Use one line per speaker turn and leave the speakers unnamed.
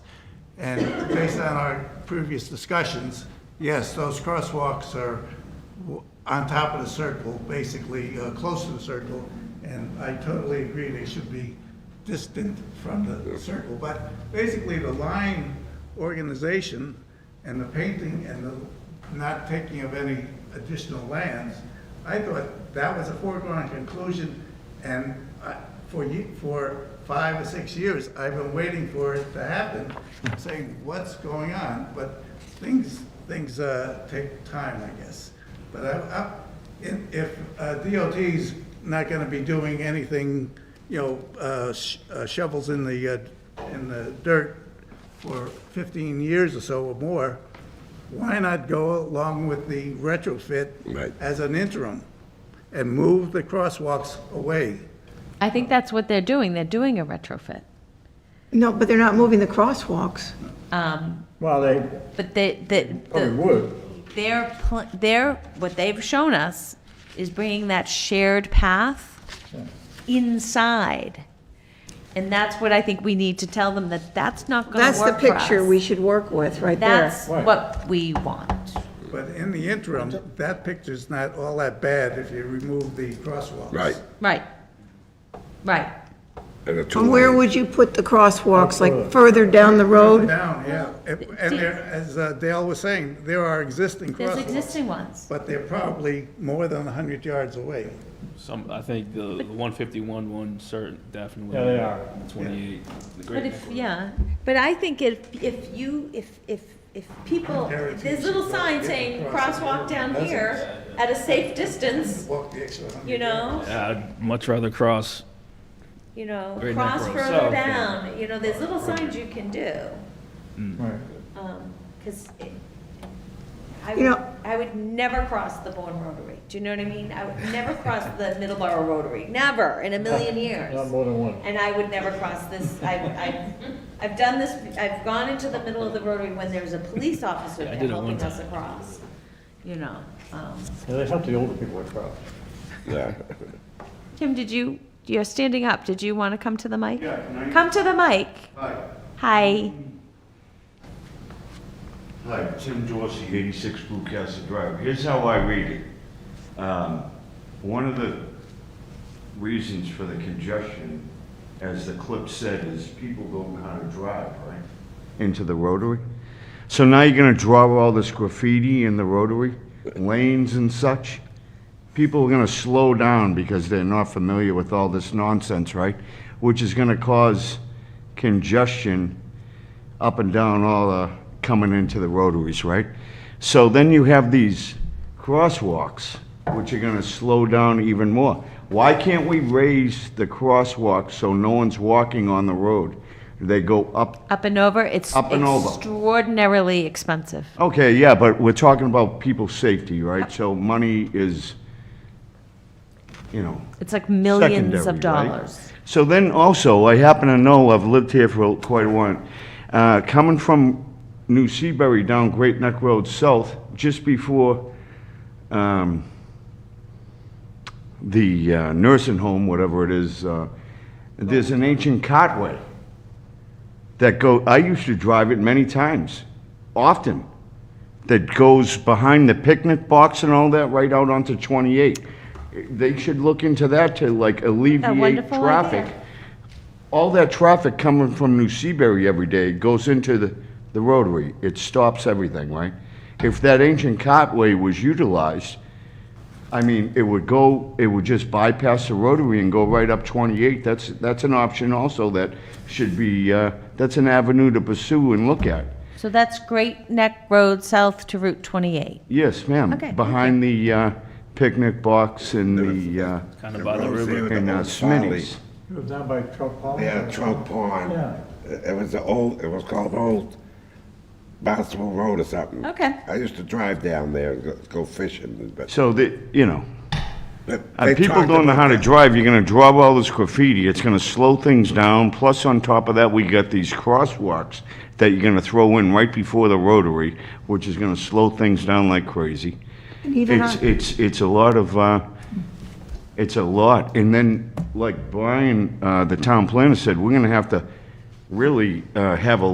And based on our previous discussions, yes, those crosswalks are w- on top of the circle, basically, uh, close to the circle. And I totally agree, they should be distant from the circle. But basically, the line organization and the painting and the not taking of any additional lands, I thought that was a foregone conclusion. And I- for, ye- for five or six years, I've been waiting for it to happen, saying, what's going on? But things, things uh, take time, I guess. But I, I, if- if uh, DOT's not gonna be doing anything, you know, uh, sh- uh, shovels in the, uh, in the dirt for fifteen years or so or more, why not go along with the retrofit
Right.
as an interim and move the crosswalks away?
I think that's what they're doing. They're doing a retrofit.
No, but they're not moving the crosswalks.
Well, they
But they, the,
Oh.
probably
the,
would.
their, pl- their, what they've shown us is bringing that shared path inside. And that's what I think we need to tell them that that's not gonna work
That's
for
the
us.
picture we should work with, right there.
That's
Right.
what we want.
But in the interim, that picture's not all that bad if you remove the crosswalks.
Right,
Right. Right.
and the two
And where
lanes.
would you put the crosswalks, like further down the road?
Down, yeah. And and there, as uh, Dale was saying, there are existing
There's
crosswalks,
existing ones.
but they're probably more than hundred yards away.
Some, I think the the 151 one, certain, definitely.
Yeah, they are.
The 28. the Great
But
Neck
if,
Road.
yeah, but I think if, if you, if, if, if people,
Guarantees
there's little
you
signs
don't
saying
get across
crosswalk down
Doesn't-
here at a safe distance,
Walk the extra hundred.
you know,
Yeah, I'd much rather cross.
you know,
Great Neck
cross
Road
further
South, yeah.
down, you know, there's little signs you can do.
Mm.
Right.
um, Cause it- I would,
You know-
I would never cross the Bourne Rotary, do you know what I mean? I would never cross the Middleborough Rotary, never, in a million years.
Not more than one.
And I would never cross this, I, I, I've done this, I've gone into the middle of the rotary when there's a police officer
I
there
did it one
helping us
time.
across, you know. um.
Yeah, they help the older people across.
Yeah.
Kim, did you, you're standing up, did you want to come to the mic?
Yeah, can I-
Come to the mic,
Hi,
hi,
hi, Tim Dorsey, 86 Bluecastle Drive. Here's how I read it. Um, One of the reasons for the congestion, as the clip said, is people don't know how to drive, right? Into the rotary. So now you're gonna draw all this graffiti in the rotary, lanes and such? people are going to slow down because they're not familiar with all this nonsense, right? Which is going to cause congestion up and down all the, coming into the rotaries, right? So then you have these crosswalks, which are going to slow down even more. Why can't we raise the crosswalk so no one's walking on the road? They go up
up and over, it's
Up and over.
extraordinarily expensive.
Okay, yeah, but we're talking about people's safety, right? So money is, you know.
It's like millions of
secondary, right?
dollars.
So then also, I happen to know, I've lived here for quite a while, uh, coming from New Seabury down Great Neck Road South, just before um, the uh, nursing home, whatever it is, uh, there's an ancient cartway that go, I used to drive it many times, often, that goes behind the picnic box and all that, right out onto 28. They should look into that to like alleviate
wonderful
traffic.
idea.
All that traffic coming from New Seabury every day goes into the, the rotary. It stops everything, right? If that ancient cartway was utilized, I mean, it would go, it would just bypass the rotary and go right up 28. That's, that's an option also that should be, uh, that's an avenue to pursue and look at.
So that's Great Neck Road South to Route 28.
Yes, ma'am.
Okay,
Behind the uh, picnic box and the, uh,
Kind of by the river.
and uh, Smitty's.
It was down by Trump Hall.
Yeah, Trump Pond.
Yeah.
It it was the old, it was called Old Barnstable Road or something.
Okay.
I used to drive down there and go- go fishing, but.
So that, you know,
but
and
they
people
talked
don't know
about
how to
that.
drive, you're gonna draw all this graffiti, it's gonna slow things down. Plus, on top of that, we got these crosswalks that you're gonna throw in right before the rotary, which is gonna slow things down like crazy.
And even
It's,
on-
it's, it's a lot of, uh, it's a lot. And then, like Brian, uh, the town planner said, we're gonna have to really, uh, have a